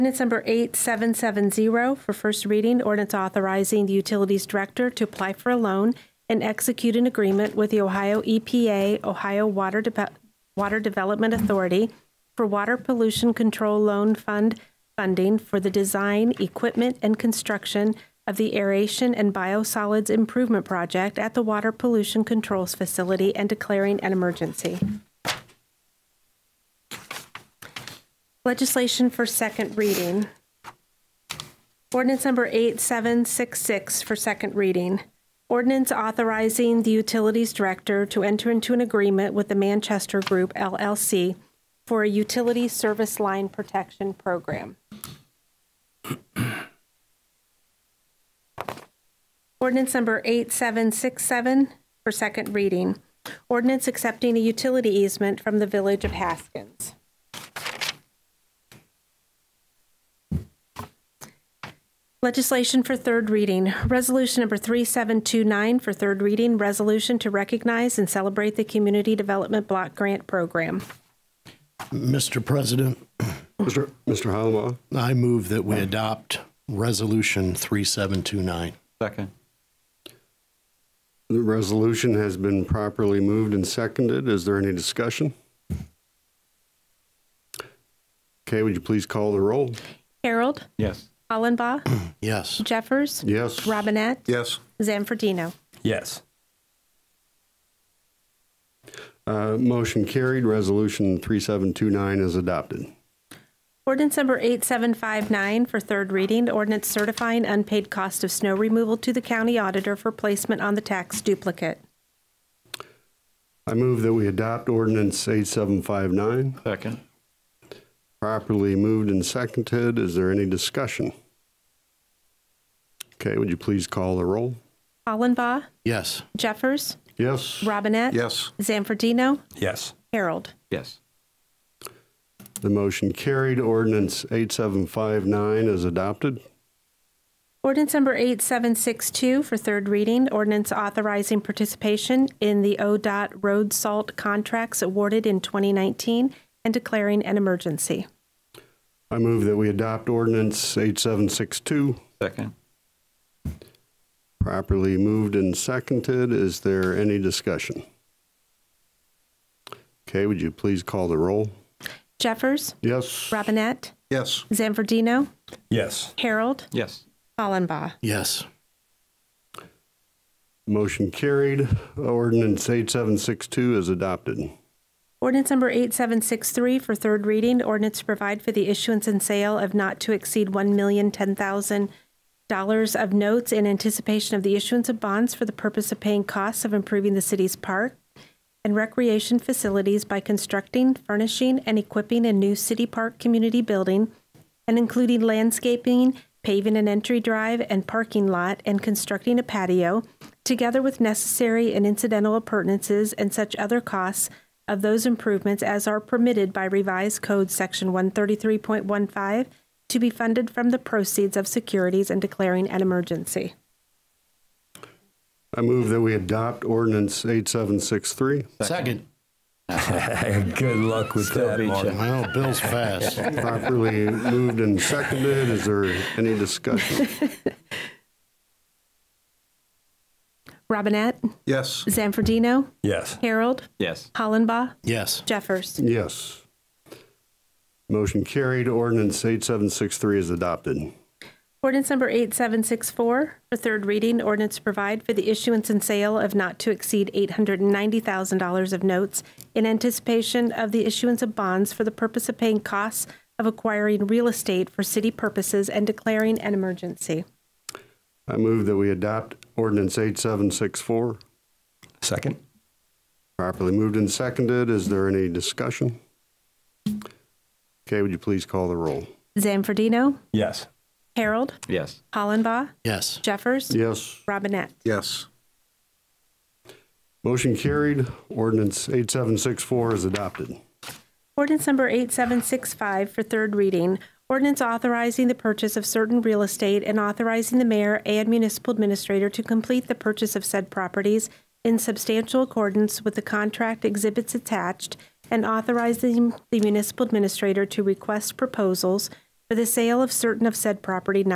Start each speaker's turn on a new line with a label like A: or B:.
A: Ordinance number 8770 for first reading, ordinance authorizing the Utilities Director to apply for a loan and execute an agreement with the Ohio EPA, Ohio Water Deve- Water Development Authority for Water Pollution Control Loan Fund funding for the design, equipment, and construction of the aeration and biosolids improvement project at the Water Pollution Controls Facility and declaring an emergency. Legislation for second reading. Ordinance number 8766 for second reading. Ordinance authorizing the Utilities Director to enter into an agreement with the Manchester Group LLC for a utility service line protection program. Ordinance number 8767 for second reading. Ordinance accepting a utility easement from the Village of Haskins. Legislation for third reading. Resolution number 3729 for third reading, resolution to recognize and celebrate the Community Development Block Grant Program.
B: Mr. President,
C: Mr. Mr. Hollenbaugh?
B: I move that we adopt Resolution 3729.
D: Second.
C: The resolution has been properly moved and seconded. Is there any discussion? Okay, would you please call the roll?
A: Harold,
D: Yes.
A: Hollenbaugh,
B: Yes.
A: Jeffers,
C: Yes.
A: Robinette,
C: Yes.
A: Zanfordino.
E: Yes.
C: Uh, Motion carried. Resolution 3729 is adopted.
A: Ordinance number 8759 for third reading, ordinance certifying unpaid cost of snow removal to the county auditor for placement on the tax duplicate.
C: I move that we adopt ordinance 8759.
D: Second.
C: Properly moved and seconded. Is there any discussion? Okay, would you please call the roll?
A: Hollenbaugh,
B: Yes.
A: Jeffers,
C: Yes.
A: Robinette.
C: Yes.
A: Zanfordino,
E: Yes.
A: Harold.
D: Yes.
C: The motion carried. Ordinance 8759 is adopted.
A: Ordinance number 8762 for third reading, ordinance authorizing participation in the ODOT road salt contracts awarded in 2019 and declaring an emergency.
C: I move that we adopt ordinance 8762.
D: Second.
C: Properly moved and seconded. Is there any discussion? Okay, would you please call the roll?
A: Jeffers,
C: Yes.
A: Robinette,
C: Yes.
A: Zanfordino,
E: Yes.
A: Harold,
D: Yes.
A: Hollenbaugh.
B: Yes.
C: Motion carried. Ordinance 8762 is adopted.
A: Ordinance number 8763 for third reading, ordinance to provide for the issuance and sale of not to exceed $1,010,000 of notes in anticipation of the issuance of bonds for the purpose of paying costs of improving the city's park and recreation facilities by constructing, furnishing, and equipping a new city park community building and including landscaping, paving an entry drive and parking lot, and constructing a patio, together with necessary and incidental appurtenances and such other costs of those improvements as are permitted by revised code section 133.15 to be funded from the proceeds of securities and declaring an emergency.
C: I move that we adopt ordinance 8763.
B: Second.
E: Good luck with that,
D: beat
E: Mark.
D: ya.
B: Well, Bill's fast.
C: Properly moved and seconded. Is there any discussion?
A: Robinette,
C: Yes.
A: Zanfordino,
E: Yes.
A: Harold,
D: Yes.
A: Hollenbaugh,
B: Yes.
A: Jeffers.
C: Yes. Motion carried. Ordinance 8763 is adopted.
A: Ordinance number 8764 for third reading, ordinance to provide for the issuance and sale of not to exceed $890,000 of notes in anticipation of the issuance of bonds for the purpose of paying costs of acquiring real estate for city purposes and declaring an emergency.
C: I move that we adopt ordinance 8764.
E: Second.
C: Properly moved and seconded. Is there any discussion? Okay, would you please call the roll?
A: Zanfordino,
E: Yes.
A: Harold,
D: Yes.
A: Hollenbaugh,
B: Yes.
A: Jeffers,
C: Yes.
A: Robinette.
C: Yes. Motion carried. Ordinance 8764 is adopted.
A: Ordinance number 8765 for third reading. Ordinance authorizing the purchase of certain real estate and authorizing the mayor and municipal administrator to complete the purchase of said properties in substantial accordance with the contract exhibits attached and authorizing the municipal administrator to request proposals for the sale of certain of said property